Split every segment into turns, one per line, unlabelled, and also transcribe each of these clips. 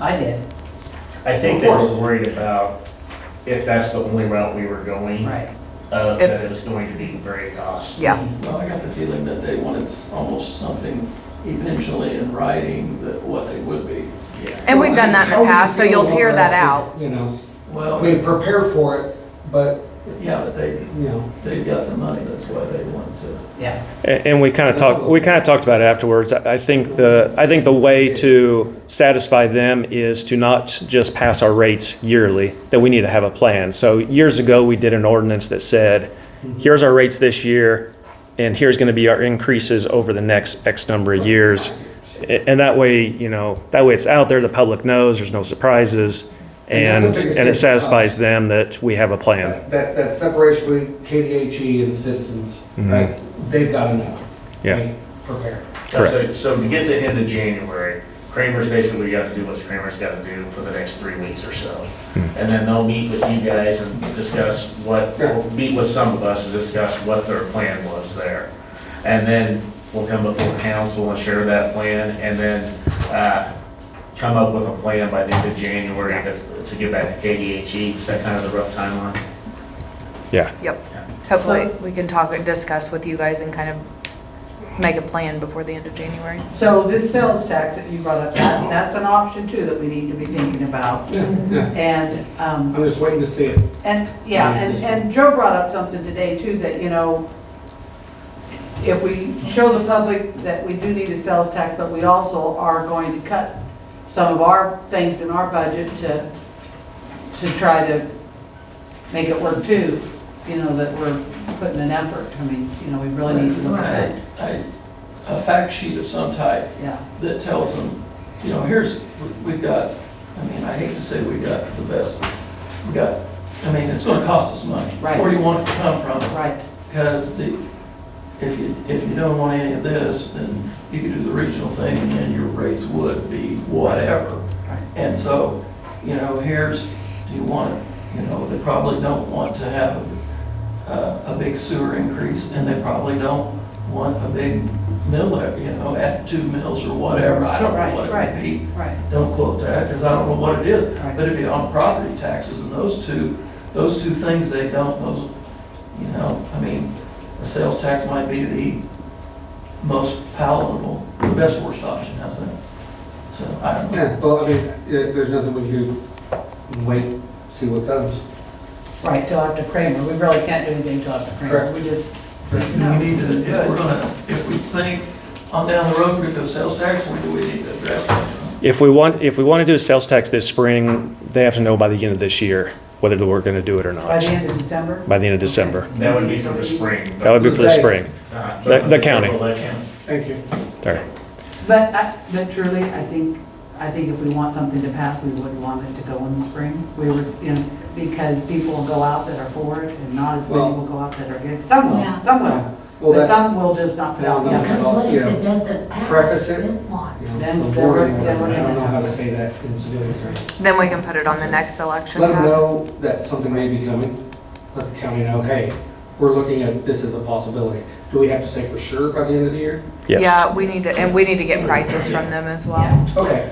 I did,
I think
Of
they were
course.
worried about if that's the only route we were going,
right.
uh, that it was going to be very costly.
Yeah.
Well, I got the feeling that they wanted s- almost something eventually in writing that what they would be.
And we've done that Oh, in the past, so you'll tear that out.
You know, I
Well,
mean, prepare for it, but,
yeah, but they,
you know,
they've got the money, that's why they want to.
Yeah,
And and we kind of talked, we kind of talked about it afterwards. I I think the, I think the way to satisfy them is to not just pass our rates yearly, that we need to have a plan. So years ago, we did an ordinance that said,
Mm-hmm.
here's our rates this year, and here's going to be our increases over the next X number of years. A- And that way, you know, that way it's out there, the public knows, there's no surprises,
And
and,
that's the biggest
and
thing
it
for us.
satisfies them that we have a plan.
that, that- that separation between KDHE E and citizens,
Mhm.
right? They've got enough.
Yeah.
right? Prepare.
So, so to get to the end of January, Kramer's basically got to do what Kramer's got to do for the next three weeks or so.
Hmm.
And then they'll meet with you guys and discuss what,
Yeah.
meet with some of us and discuss what their plan was there. And then we'll come before council and share that plan, and then, uh, come up with a plan by the end of January to, to get back to KDHE. E. Is that kind of the rough timeline?
Yeah.
Yep. Hopefully, we can talk and discuss with you guys and kind of make a plan before the end of January.
so this sales tax that you brought up, that, that's an option too that we need to be thinking about.
Yeah, yeah.
And, um,
I'm just waiting to see it.
And, yeah, and, and Joe brought up something today too, that, you know, if we show the public that we do need a sales tax, but we also are going to cut some of our things in our budget to, to try to make it work too, you know, that we're putting an effort, I mean, you know, we really need to look at that,
I- A fact sheet of some type
yeah.
that tells them, you know, here's, we've got, I mean, I hate to say we got the best, we got, I mean, it's gonna cost us money.
Right.
Where do you want it to come from?
Right,
Because the, if you, if you don't want any of this, then you could do the regional thing, and then your rates would be whatever.
Right.
And so, you know, here's, do you want it? You know, they probably don't want to have uh, a, a big sewer increase, and they probably don't want a big mill, you know, F two mills or whatever. I don't know
Right,
what it
right.
would be.
right,
Don't quote that, because I don't know what it is,
Right.
but it'd be on property taxes, and those two, those two things, they don't, those, you know, I mean, the sales tax might be the most palatable, the best worst option, how's that? So, I don't know.
Yeah, well, I mean, yeah, there's nothing we can do. Wait, see what comes.
right, till after Kramer, we really can't do anything till after Kramer,
Correct.
we just,
Do we need to, if we're gonna, if we think on down the road, we're gonna do sales tax, we do, we need to address that.
If we want, if we want to do a sales tax this spring, they have to know by the end of this year whether that we're going to do it or
by the
not,
end of December.
by the end of December.
That would be for the spring. but-
That would be for the spring.
Uh,
the- the county.
Let him-
Thank you.
All right.
But, I- but truly, I think, I think if we want something to pass, we would want it to go in the spring. We were, you know, because people will go out that are for it, and not as many
Well-
will go out that are against. Some will,
Yeah.
some will,
Well,
but
that,
some will just not put out the
Yeah.
effort.
Because what if it doesn't pass?
Preface it.
Then what?
you know,
Then-
the
then we're-
board, I
then
don't
we're gonna
know how
have-
to say that in civilian terms.
Then we can put it on the next election.
Let them
path.
know that something may be coming. Let the county know, hey, we're looking at this as a possibility. Do we have to say for sure by the end of the year?
Yes.
Yeah, we need to, and we need to get prices from them as well.
Okay.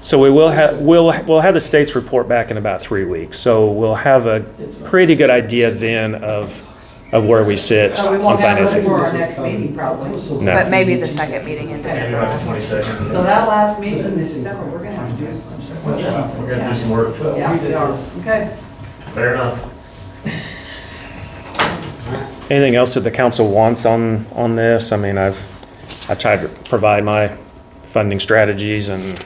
So we will have, we'll, we'll have the state's report back in about three weeks. So we'll have a
It's not-
pretty good idea then of, of where we sit
So Oh, we
on
won't have it
financing.
before our next meeting, probably. So
No.
But maybe the second meeting in
Maybe
December.
about the twenty-second.
that last meeting in December, we're gonna have to do.
Well,
Yeah, we're gonna do some work.
well, we
Yeah,
did-
we are. Okay.
Fair enough.
Anything else that the council wants on, on this? I mean, I've, I tried to provide my funding strategies and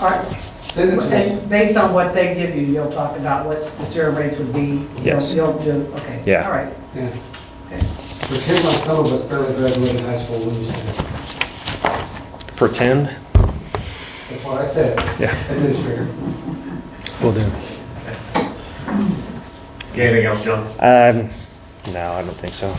All right,
Send it to us.
and based on what they give you, you'll talk about what the sewer rates would be. You'll-
Yes.
You'll do, okay.
Yeah.
All right.
Yeah.
Okay.
Pretend like some of us barely graduated high school when you said that.
pretend.
That's what I said.
Yeah.
Administrator.
Will do.
Okay, Anything else, John?
Um, no, I don't think so.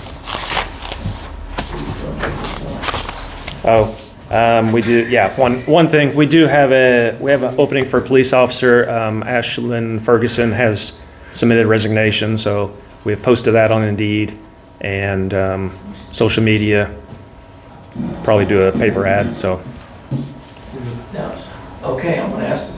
Oh, um, we do, yeah, one, one thing, we do have a, we have an opening for a police officer. Um, Ashlyn Ferguson has submitted resignation, so we have posted that on Indeed and, um, social media. Probably do a paper ad, so.
Now, okay,